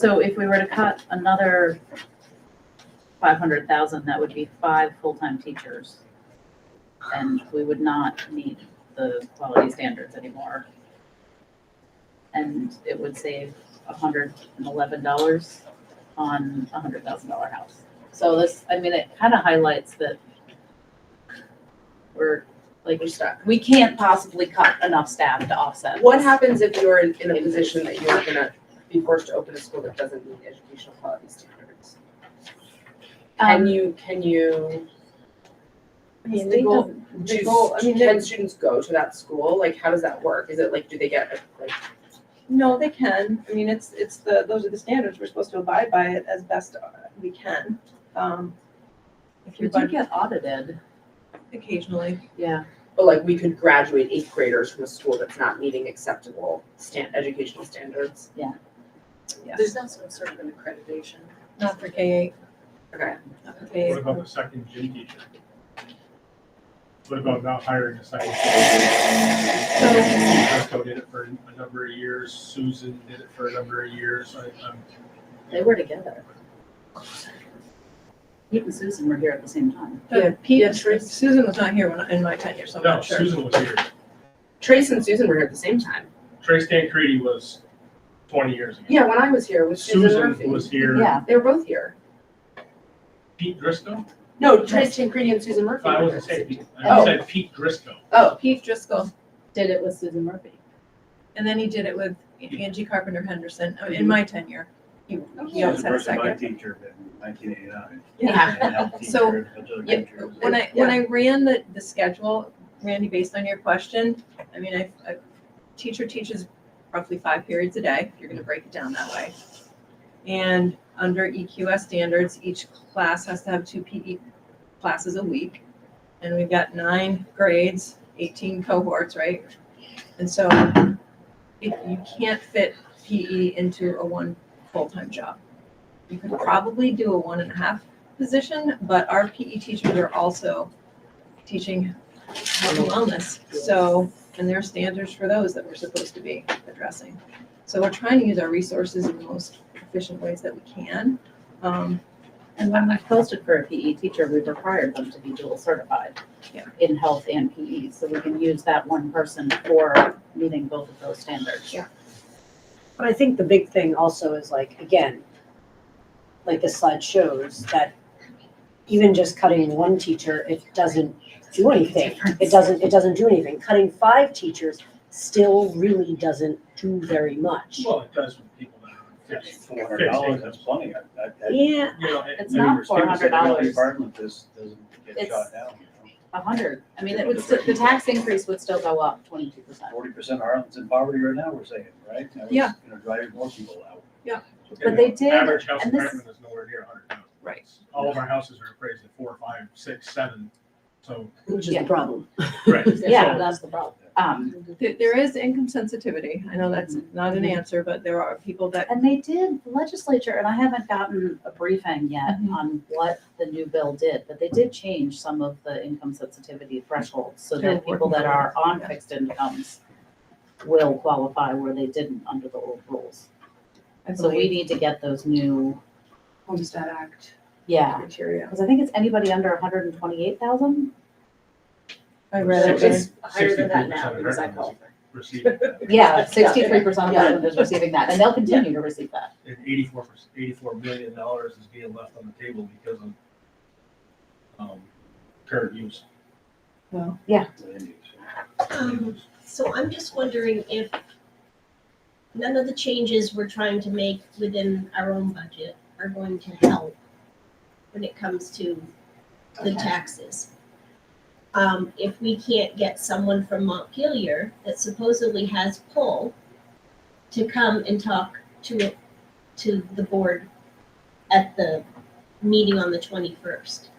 So if we were to cut another five hundred thousand, that would be five full-time teachers. And we would not meet the quality standards anymore. And it would save hundred and eleven dollars on a hundred thousand dollar house. So this, I mean, it kind of highlights that we're, like, we start, we can't possibly cut enough staff to offset. What this. happens if you're in, in a position that you're gonna be forced to open a school that doesn't meet educational quality standards? Um, Can you, can you, I mean, They they don't- don't, do, go- I mean, they- can students go to that school? Like, how does that work? Is it like, do they get, like, no, they can, I mean, it's, it's the, those are the standards, we're supposed to abide by it as best uh, we can, um, if We you do budget get audited, occasionally. yeah. but oh, like, we could graduate eighth graders from a school that's not meeting acceptable stan educational standards? There's also sort of an accreditation. Not for K eight. Okay, Not for K What eight. about the second gym teacher? What about not hiring a second? Costco did it for a number of years, Susan did it for a number of years, I, I'm. They were together. Pete and Susan were here at the same time. Yeah, Pete, yes, right. Susan was not here when, in my tenure, so I'm No, not sure. Susan was here, Trace and Susan were here at the same time. Trace Dan Creedy was twenty years ago. Yeah, when I was here, it was Susan Murphy. Susan was here, Yeah, They were both here. Pete Driscoll, No, Trace Tancredi and Susan Murphy. I were wasn't here at the saying Pete, same time. I Oh, said Pete Driscoll. oh, Pete Driscoll, did it with Susan Murphy. and then he did it with Angie Carpenter Henderson, uh, in my tenure. He, he She always was a had a person, my second. teacher in nineteen eighty-nine. Yeah. So, yeah, Yep, when I, when I ran the, the schedule, Randy, based on your question, I mean, I, a teacher teaches roughly five periods a day, if you're gonna break it down that way. And under EQS standards, each class has to have two PE classes a week. And we've got nine grades, eighteen cohorts, right? And so if you can't fit PE into a one full-time job. You could probably do a one and a half position, but our PE teachers are also teaching health and wellness. So, and there are standards for those that we're supposed to be addressing. So we're trying to use our resources in the most efficient ways that we can. Um, And when we posted for a PE teacher, we required them to be dual certified Yeah. in health and PE, so we can use that one person for meeting both of those standards. Yeah. But I think the big thing also is like, again, like the slide shows, that even just cutting one teacher, it doesn't do anything. It doesn't, it doesn't do anything. Cutting five teachers still really doesn't do very much. Well, it does with people that are fifty. Four hundred dollars, that's plenty. I- I- I- Yeah, You know, it- It's I mean, not there's people that run $400. the Department, this doesn't get It's- shot down. A hundred, I mean, it would, still- the tax increase would still go up twenty-two percent. Forty percent of Ireland's in poverty right now, we're saying, right? That was Yeah. Gonna drive more people out. But they did, Average house and this- apartment is nowhere near a hundred thousand. Right. All of our houses are appraised at four, five, six, seven, so. which is Yeah. the problem. Right. Yeah, that's the problem. Um, there, there is income sensitivity. I know that's not an answer, but there are people that, And they did, the legislature, and I haven't gotten a briefing yet Mhm. on what the new bill did, but they did change some of the income sensitivity thresholds so They're that working people that are on yeah. fixed incomes will qualify where they didn't under the old rules. I So we believe, need to get those new, Homestead Act yeah, criteria. because I think it's anybody under hundred and twenty-eight thousand? I read read it. it. It's It's higher than that now 63% because I Americans. qualify. Receiving that. Yeah, sixty-three percent of Irelanders receiving that, and they'll continue to receive that. and eighty-four, eighty-four million dollars is being left on the table because of, um, current use. Land use. Um, So I'm just wondering if none of the changes we're trying to make within our own budget are going to help when it comes to the taxes. Um, if we can't get someone from Montpelier that supposedly has pull to come and talk to, to the board at the meeting on the twenty-first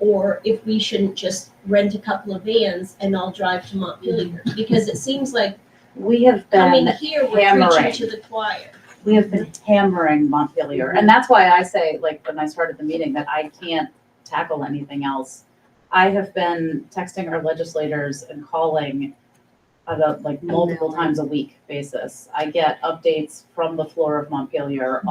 or if we shouldn't just rent a couple of vans and all drive to Montpelier. Because it seems like We have been. coming here, we're hammering. preaching to the choir. we have been hammering Montpelier, and that's why I say, like, when I started the meeting, that I can't tackle anything else. I have been texting our legislators and calling on a, like, multiple times a week basis. I get updates from the floor of Montpelier